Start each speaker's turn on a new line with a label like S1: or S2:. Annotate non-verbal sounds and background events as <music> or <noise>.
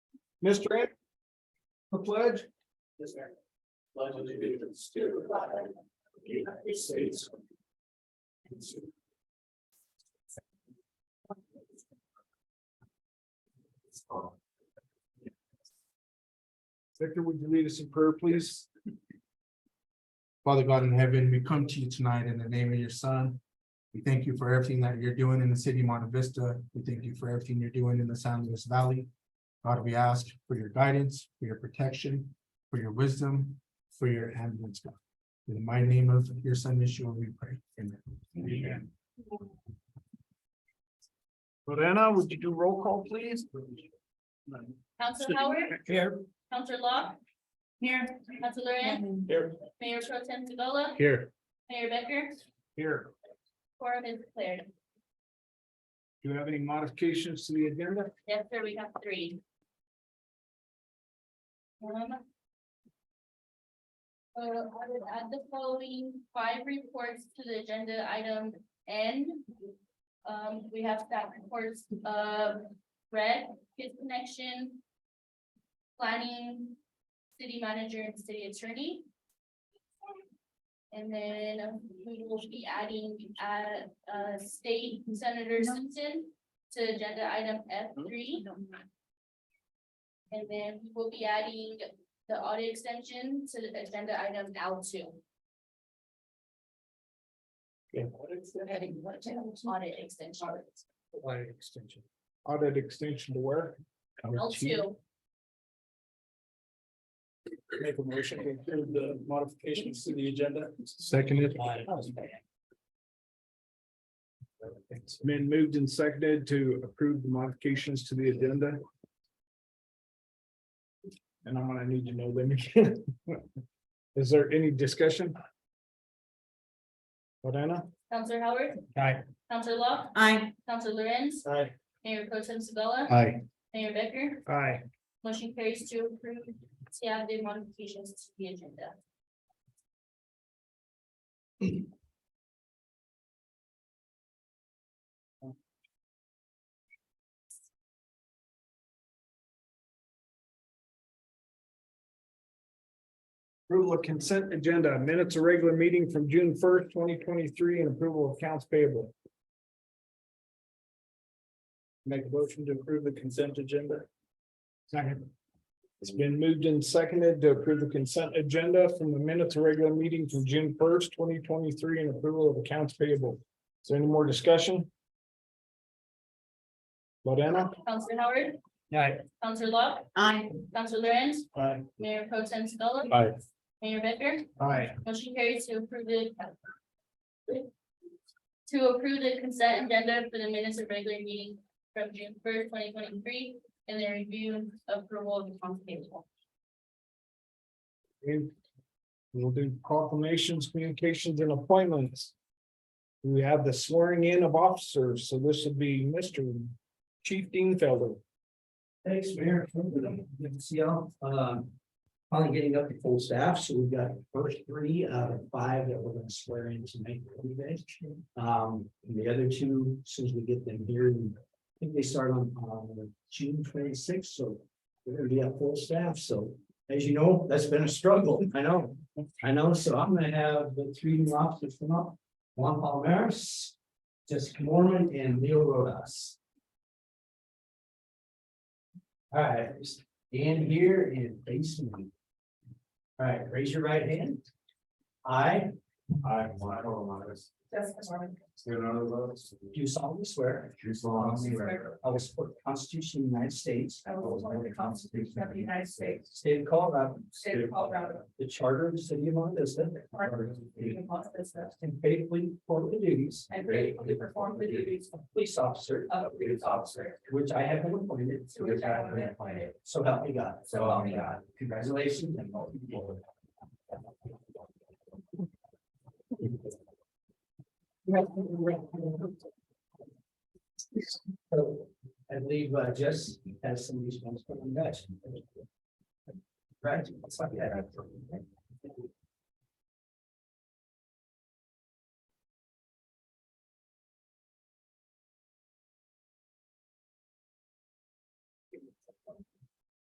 S1: Mr. Anderson, The pledge?
S2: Yes, sir. Pledge allegiance to the flag of the United States.
S1: Victor, would you lead us in prayer, please? Father God in heaven, we come to you tonight in the name of your son. We thank you for everything that you're doing in the city of Monte Vista. We thank you for everything you're doing in the San Luis Valley. God, we ask for your guidance, for your protection, for your wisdom, for your ambulance. God. In my name of your son, Yeshua, we pray. Amen.
S2: Lorena, would you do roll call, please?
S3: Counselor Howard,
S2: Here.
S3: Counselor Locke. Here. Counselor Ann,
S2: Here.
S3: Mayor Pro Tem Segola,
S1: Here.
S3: Mayor Becker,
S1: Here.
S3: quorum is declared.
S1: Do you have any modifications to the agenda?
S3: Yes, sir, we have three. Um, So I would add the following five reports to the agenda item N. Um, we have staff reports of red, kids connection, planning, city manager and city attorney. And then we will be adding, uh, uh, state senator Simpson to agenda item F
S1: Hmm?
S3: three. And then we will be adding the audio extension to the agenda item L two. Audit extension,
S1: Audit extension. Audit extension to where?
S3: L two,
S2: Make a motion to include the modifications to the agenda.
S1: Seconded. It's been moved and seconded to approve the modifications to the agenda. And I'm gonna need to know them. again. <laughs> Is there any discussion? Lorena?
S3: Counselor Howard,
S1: Aye.
S3: Counselor Locke,
S4: Aye.
S3: Counselor Lorenz,
S1: Aye.
S3: Mayor Pro Tem Segola,
S1: Aye.
S3: Mayor Becker,
S1: Aye.
S3: motion carries to approve to add the modifications to the agenda.
S1: Approval of consent agenda, minutes of regular meeting from June first, twenty twenty-three, and approval of accounts payable. Make a motion to approve the consent agenda. Second. It's been moved and seconded to approve the consent agenda from the minutes of regular meeting from June first, twenty twenty-three, and approval of accounts payable. Is there any more discussion? Lorena?
S3: Counselor Howard,
S1: Aye.
S3: Counselor Locke,
S4: Aye.
S3: Counselor Lorenz,
S1: Aye.
S3: Mayor Pro Tem Segola,
S1: Aye.
S3: Mayor Becker,
S1: Aye.
S3: Motion carries to approve the. To approve the consent agenda for the minutes of regular meeting from June first, twenty twenty-three, and the review of approval of the council table.
S1: Okay. We'll do proclamations, communications and appointments. We have the swearing in of officers, so this would be Mr. Chief Dean Felder.
S5: Thanks, Mayor. Good to see y'all. Um, finally getting up to full staff, so we've got the first three out of five that we're gonna swear in tonight for you guys. Um, and the other two, as soon as we get them here, and I think they start on, um, June twenty-sixth, so we're gonna be at full staff, so as you know, that's been a struggle, <laughs> I know. I know, so I'm gonna have the three new officers come up, Juan Palmeras, Jessica Mormon, and Leo Rodas. All right, just stand here and face me. All right, raise your right hand. I. I, Juan Romanes. Leonardo Romanes. Do solemnly swear. Do solemnly swear. I will support the Constitution of the United States. I will support the Constitution of the United States. State of Colorado. State of Colorado. The Charter of the City of Monte Vista. And faithfully perform the duties. And faithfully perform the duties. Of police officer. Of police officer. Which I have been appointed. To which I have been appointed. So help me God. So help me God. Congratulations and welcome aboard. So I believe uh, Jess has some responsibility on that. Right. it's like that.